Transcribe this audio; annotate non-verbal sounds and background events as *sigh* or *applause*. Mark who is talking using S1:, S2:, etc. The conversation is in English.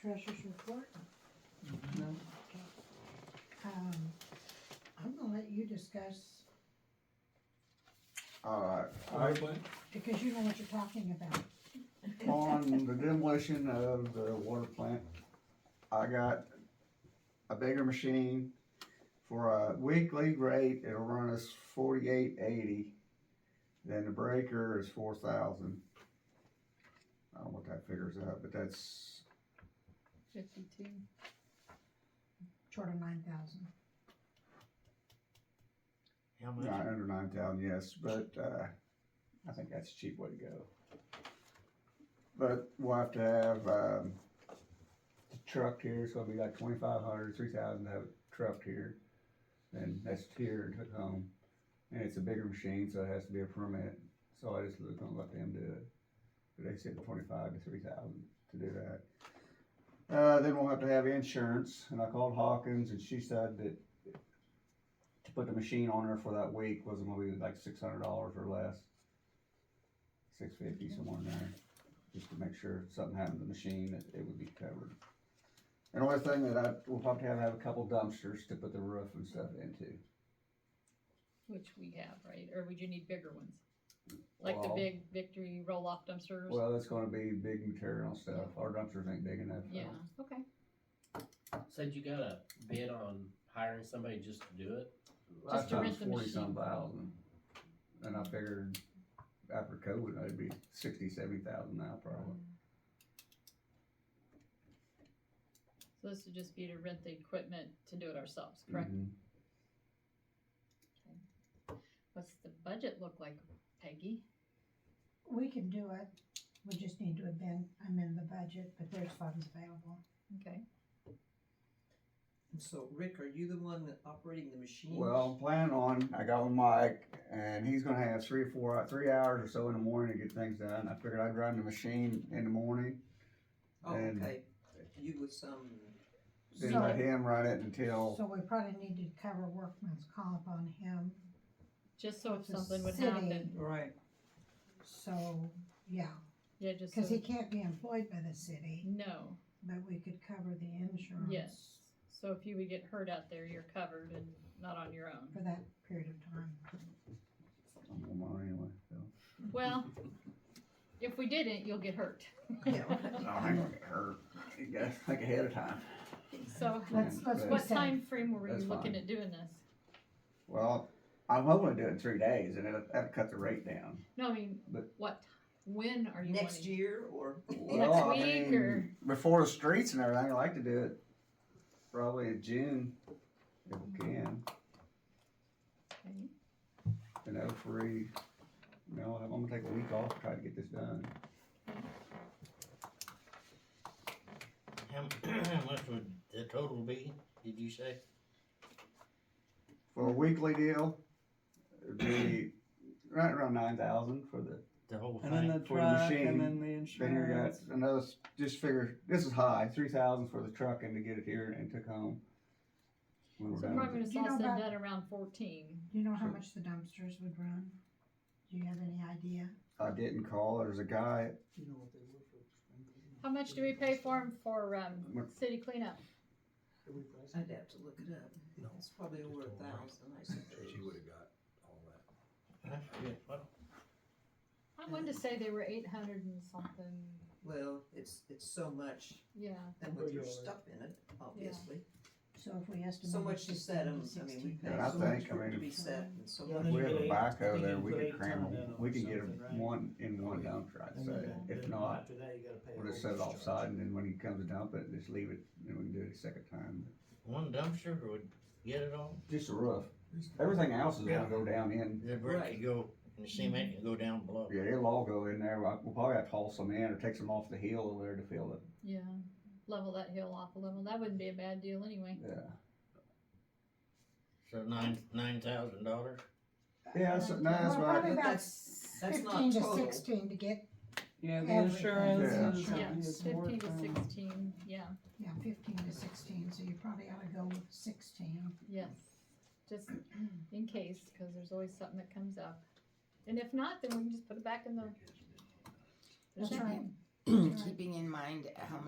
S1: treasurer's report?
S2: No.
S1: Um, I'm gonna let you discuss,
S3: Uh,
S2: Fire plan?
S1: because you know what you're talking about.
S3: on the demolition of the water plant, I got a bigger machine for a weekly rate, it'll run us forty-eight eighty. Then the breaker is four thousand. I don't know what that figures out, but that's,
S4: Fifty-two.
S1: short of nine thousand.
S5: How much?
S3: not under nine thousand, yes, but, uh, I think that's a cheap way to go. But we'll have to have, um, the truck here, so it'll be like twenty-five hundred, three thousand to have a truck here. And that's here and took home, and it's a bigger machine, so it has to be a permit, so I just was gonna let them do it. But they said twenty-five to three thousand to do that. Uh, then we'll have to have insurance, and I called Hawkins, and she said that to put the machine on her for that week was gonna be like six hundred dollars or less. Six fifty, somewhere in there, just to make sure if something happened to the machine, that it would be covered. And the only thing that I, we'll probably have, have a couple dumpsters to put the roof and stuff into.
S4: Which we have, right? Or would you need bigger ones? Like the
S3: Well-
S4: big victory roll-off dumpsters?
S3: Well, it's gonna be big material stuff, our dumpsters ain't big enough.
S4: Yeah, okay.
S5: Said you got a bid on hiring somebody just to do it?
S3: Last
S4: Just to
S3: time
S4: rent the
S3: forty some
S4: machine.
S3: thousand, and I figured after COVID, it'd be sixty, seventy thousand now probably.
S4: Um, So this would just be to rent the equipment to do it ourselves, correct?
S3: Mhm.
S4: What's the budget look like, Peggy?
S1: We can do it, we just need to amend, amend the budget, but there's funds available.
S4: Okay.
S6: And So Rick, are you the one that operating the machine?
S3: Well, I'm planning on, I got with Mike, and he's gonna have three or four, three hours or so in the morning to get things done. I figured I'd run the machine in the morning,
S6: Oh,
S3: and-
S6: okay. You um, with some,
S3: then
S1: So-
S3: let him run it until,
S1: So we probably need to cover workman's comp on him,
S4: Just so if
S1: The
S4: something would
S1: city.
S4: happen,
S6: right,
S1: so, yeah,
S4: yeah, just so.
S1: cause he can't be employed by the city,
S4: No,
S1: but we could cover the insurance.
S4: yes. So if you would get hurt out there, you're covered and not on your own.
S1: For that period of time.
S3: I'm on mine anyway, so.
S4: Well, if we didn't, you'll get hurt.
S3: Oh, I ain't gonna get hurt, you gotta think ahead of time.
S4: So
S1: Let's, let's be
S4: what
S1: safe.
S4: time frame were
S3: That's
S4: you looking
S3: fine.
S4: at doing this?
S3: Well, I'm hoping to do it in three days, and it'll, that'll cut the rate down.
S4: No, I mean,
S3: But-
S4: what, when are you
S6: next
S4: wanting?
S6: year or? *laughs*
S3: Well, I
S4: week,
S3: mean,
S4: or-
S3: Before the streets and everything, I'd like to do it probably in June, if we can.
S4: Okay.
S3: and oh three. You know, I'm gonna take a week off, to try to get this done.
S5: How *clears throat* how much would the total be, did you say?
S3: For a weekly deal, it'd be right around nine thousand for the,
S5: The whole
S6: And then the
S5: thing?
S3: For the truck,
S6: truck
S3: and machine.
S6: and
S3: then
S6: then the
S3: then you got
S6: insurance.
S3: another, s- just figure, this is high, three thousand for the truck and to get it here and took home. When we're
S4: So
S3: done with
S4: probably
S3: it.
S4: when it's
S1: You know
S4: all said and
S1: about-
S4: done around fourteen.
S1: Do you know how
S3: So-
S1: much the dumpsters would run? Do you have any idea?
S3: I didn't call, there's a guy,
S6: You know what they were for.
S4: How much do we pay for 'em for, um,
S3: What-
S4: city cleanup?
S6: I'd have to look it up.
S7: No.
S6: It's probably over a thousand, I suppose.
S7: She would have got all that.
S4: I wanted to say they were eight hundred and something,
S6: Well, it's, it's so much,
S4: yeah.
S6: and with your stuff in it, obviously.
S1: So if we estimate.
S6: So much to set them, I mean, we pay
S3: And I
S6: so much
S3: think, I
S6: for it to
S3: mean-
S6: be set and so
S7: Yeah,
S3: if
S6: much.
S3: we have a
S7: Eight-
S3: backhoe there,
S7: you
S3: we
S7: put
S3: could
S7: eight
S3: cram,
S7: ton
S3: 'em.
S7: down on
S3: we could get 'em
S7: something, right?
S3: one in one dump, I'd say. If not,
S7: After that, you gotta pay. a
S3: we'll just
S7: whole
S3: set it
S7: discharge.
S3: offside and then when he comes to dump it, just leave it, and we can do it a second time.
S5: One dumpster would get it all?
S3: Just the roof. Everything else is gonna
S7: Yeah.
S3: go down in.
S5: The brick
S6: Right.
S5: could go, and the cement could go down below.
S3: Yeah, it'll all go in there. We'll probably have to haul some in or take some off the hill over there to fill it.
S4: Yeah, level that hill off a level, that wouldn't be a bad deal anyway.
S3: Yeah.
S5: So nine, nine thousand dollars?
S3: Yeah, that's, no, that's
S1: Well,
S3: what
S1: Probably
S3: I,
S1: about
S6: That's- that's not
S1: fifteen to
S6: total.
S1: sixteen to get,
S6: Yeah,
S1: the Everything. insurances
S4: Yeah,
S1: Yeah,
S4: fifteen to sixteen, yeah,
S1: yeah, fifteen to sixteen, so you probably ought to go with sixteen.
S6: *clears throat*
S4: yes. Just in case, cause there's always something that comes up. And if not, then we can just put it back in the. the
S1: That's right.
S4: check-in.
S1: That's right.
S8: keeping in mind how